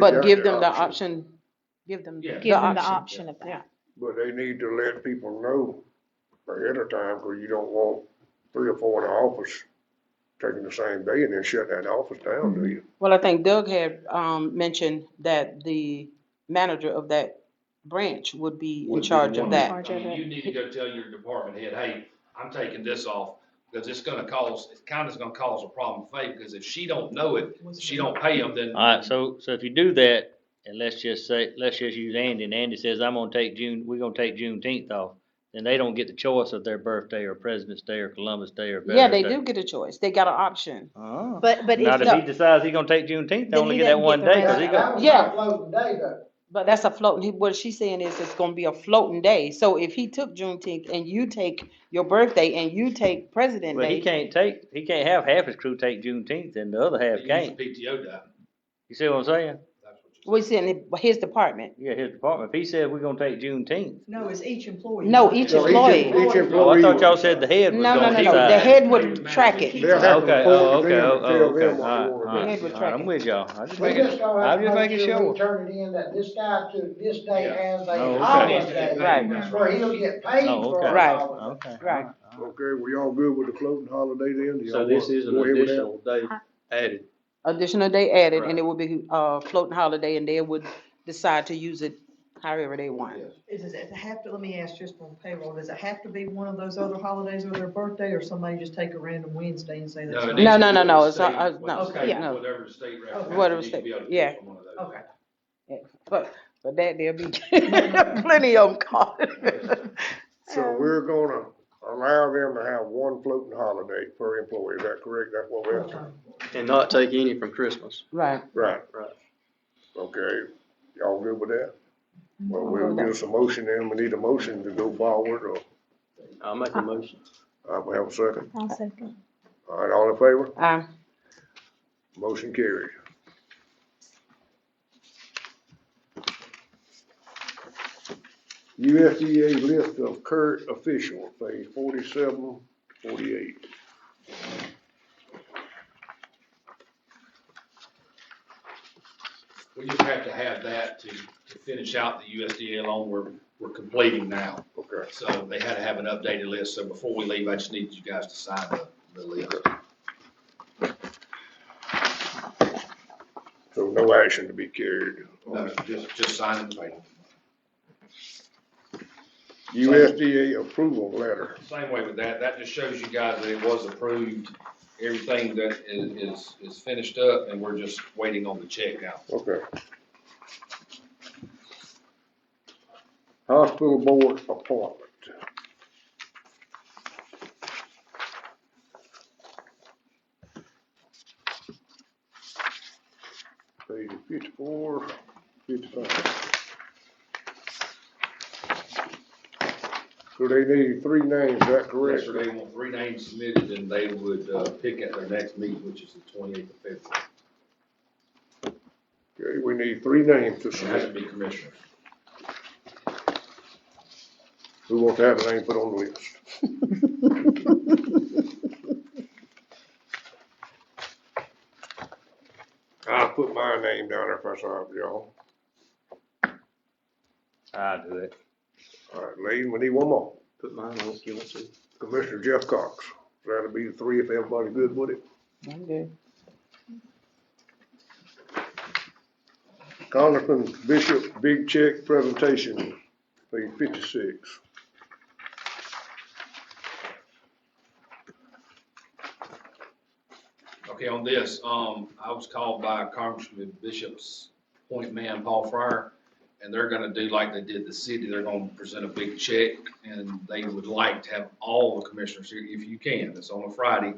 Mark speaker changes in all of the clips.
Speaker 1: But give them the
Speaker 2: option.
Speaker 1: option, give them
Speaker 3: Yeah.
Speaker 1: the
Speaker 4: give them the option
Speaker 1: option.
Speaker 4: of
Speaker 1: yeah.
Speaker 4: that.
Speaker 2: But they need to let people know ahead of time, cause you don't want three or four in the office taking the same day and then shut that office down, do you?
Speaker 1: Well, I think Doug had, um, mentioned that the manager of that branch would be
Speaker 5: Would
Speaker 1: in
Speaker 5: be
Speaker 1: charge
Speaker 5: one.
Speaker 1: of that.
Speaker 4: Charge
Speaker 3: I
Speaker 4: of
Speaker 3: mean,
Speaker 4: it.
Speaker 3: you need to go tell your department head, hey, I'm taking this off, because it's gonna cause, it's kinda's gonna cause a problem for Faith, because if she don't know it, if she don't pay them, then.
Speaker 6: Alright, so, so if you do that, and let's just say, let's just use Andy, and Andy says, I'm gonna take June, we're gonna take Juneteenth off, then they don't get the choice of their birthday or President's Day or Columbus Day or
Speaker 1: Yeah,
Speaker 6: Veterans Day.
Speaker 1: they do get a choice. They got an option.
Speaker 6: Oh.
Speaker 4: But, but
Speaker 6: Now,
Speaker 4: if,
Speaker 6: if he
Speaker 4: the-
Speaker 6: decides he gonna take Juneteenth, they
Speaker 4: Then
Speaker 6: only
Speaker 4: he
Speaker 6: get
Speaker 4: doesn't
Speaker 6: that
Speaker 4: get
Speaker 6: one
Speaker 4: the
Speaker 6: day,
Speaker 4: rest.
Speaker 6: cause he got,
Speaker 1: Yeah.
Speaker 7: Floating day though.
Speaker 1: But that's a floating, he- what she's saying is it's gonna be a floating day. So if he took Juneteenth and you take your birthday and you take President
Speaker 6: but he
Speaker 1: Day,
Speaker 6: can't take, he can't have half his crew take Juneteenth and the other half
Speaker 3: they use
Speaker 6: can't.
Speaker 3: the PTO time.
Speaker 6: You see what I'm saying?
Speaker 3: That's what you're saying.
Speaker 1: we're saying his department.
Speaker 6: Yeah, his department, if he says we're gonna take Juneteenth,
Speaker 7: No, it's each employee.
Speaker 1: No, each
Speaker 2: So each
Speaker 1: employee.
Speaker 2: em- Each
Speaker 6: oh, I
Speaker 2: employee.
Speaker 6: thought y'all said the head was
Speaker 1: No, no,
Speaker 6: gonna
Speaker 1: no,
Speaker 6: decide.
Speaker 1: no, the head would
Speaker 3: Manager.
Speaker 1: track it.
Speaker 2: They'll have to
Speaker 6: Okay,
Speaker 2: report
Speaker 6: oh,
Speaker 2: to
Speaker 6: okay,
Speaker 2: them
Speaker 6: oh,
Speaker 2: and
Speaker 6: oh,
Speaker 2: tell
Speaker 6: okay,
Speaker 2: them what you
Speaker 6: alright,
Speaker 2: wanna do.
Speaker 1: Head would track
Speaker 6: alright, alright,
Speaker 1: it.
Speaker 6: I'm with y'all, I'm just
Speaker 7: We
Speaker 6: making,
Speaker 7: just gonna have
Speaker 6: I'm
Speaker 7: to
Speaker 6: just
Speaker 7: make
Speaker 6: making
Speaker 7: sure
Speaker 6: sure.
Speaker 7: we turn it in that this guy to this day
Speaker 3: Yeah.
Speaker 7: has
Speaker 6: Oh,
Speaker 7: a
Speaker 6: okay.
Speaker 7: holiday.
Speaker 1: Right.
Speaker 7: That's where he'll get paid
Speaker 6: Oh,
Speaker 7: for
Speaker 6: okay.
Speaker 7: a
Speaker 1: Right.
Speaker 7: holiday.
Speaker 6: Okay.
Speaker 1: Right.
Speaker 2: Okay, we all good with the floating holiday then? Do y'all
Speaker 5: So this
Speaker 2: wanna
Speaker 5: is an
Speaker 2: go ahead with that?
Speaker 5: additional day added.
Speaker 1: Additional day added, and
Speaker 5: Right.
Speaker 1: it would be, uh, floating holiday, and they would decide to use it however they want.
Speaker 7: Is it, does it have to, let me ask just on payroll, does it have to be one of those other holidays or their birthday, or somebody just take a random Wednesday and say that's?
Speaker 3: it
Speaker 1: No,
Speaker 3: needs
Speaker 1: no,
Speaker 3: to
Speaker 1: no,
Speaker 3: be
Speaker 1: no,
Speaker 3: the
Speaker 1: it's not-
Speaker 3: state-
Speaker 1: uh,
Speaker 3: what
Speaker 1: no,
Speaker 3: the state-
Speaker 1: yeah, no.
Speaker 3: Whatever the state represents,
Speaker 1: Whatever
Speaker 3: you need to
Speaker 1: state-
Speaker 3: be able to
Speaker 1: yeah.
Speaker 3: pick one of those.
Speaker 7: Okay.
Speaker 1: But, but that, there'll be plenty of them calling.
Speaker 2: So we're gonna allow them to have one floating holiday per employee, is that correct? That's what we're,
Speaker 7: Okay.
Speaker 5: And not take any from Christmas.
Speaker 1: Right,
Speaker 2: right?
Speaker 5: Right.
Speaker 2: Okay, y'all good with that? Well,
Speaker 1: I'm good
Speaker 2: we'll
Speaker 1: with that.
Speaker 2: give us a motion then, we need a motion to go forward, or,
Speaker 5: I'll make a motion.
Speaker 2: I will have a second.
Speaker 4: I'll second.
Speaker 2: All right, all in favor?
Speaker 1: um,
Speaker 2: Motion carried. USDA list of current officials, page forty-seven, forty-eight.
Speaker 3: We just have to have that to, to finish out the USDA loan we're, we're completing now.
Speaker 2: Okay,
Speaker 3: So they had to have an updated list, so before we leave, I just need you guys to sign the, the list.
Speaker 2: so no action to be carried.
Speaker 3: No, just, just sign it, right?
Speaker 2: USDA approval letter.
Speaker 3: Same way with that, that just shows you guys that it was approved, everything that is, is, is finished up, and we're just waiting on the check now.
Speaker 2: Okay. Hospital board appointment. Page fifty-four, fifty-five. So they need three names, is that correct?
Speaker 3: Yesterday, we want three names submitted, and they would, uh, pick at their next meeting, which is the twenty-eighth of February.
Speaker 2: Okay, we need three names to
Speaker 3: It has to
Speaker 2: submit.
Speaker 3: be commissioners.
Speaker 2: We want to have a name put on the list. I'll put my name down there if that's all right with y'all.
Speaker 6: I'll do it.
Speaker 2: All right, lady, we need one more.
Speaker 5: Put mine on if you want to.
Speaker 2: Commissioner Jeff Cox. That'll be the three if everybody good with it.
Speaker 1: I'm good.
Speaker 2: Congressman Bishop, big check presentation, page fifty-six.
Speaker 3: Okay, on this, um, I was called by Congressman Bishop's point man, Paul Fryer, and they're gonna do like they did the city, they're gonna present a big check, and they would like to have all the commissioners here if you can. It's on a Friday,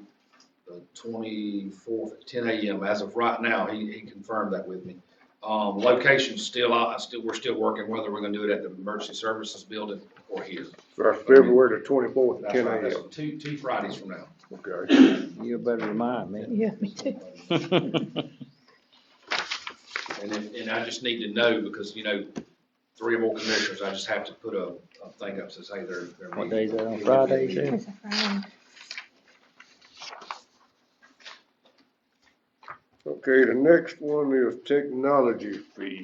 Speaker 3: the twenty-fourth at ten AM, as of right now, he, he confirmed that with me. Um, location's still, out. I still, we're still working whether we're gonna do it at the Emergency Services Building or here.
Speaker 2: So that's February the twenty-fourth,
Speaker 3: That's
Speaker 2: ten
Speaker 3: right, that's
Speaker 2: AM.
Speaker 3: two, two Fridays from now.
Speaker 2: Okay.
Speaker 6: You better remind me.
Speaker 4: Yeah, me too.
Speaker 3: And if, and I just need to know, because, you know, three or more commissioners, I just have to put a, a thing up to say they're. they're
Speaker 6: What
Speaker 3: meeting.
Speaker 6: day is that, on Friday, you said?
Speaker 2: So Okay, the next one is technology fee.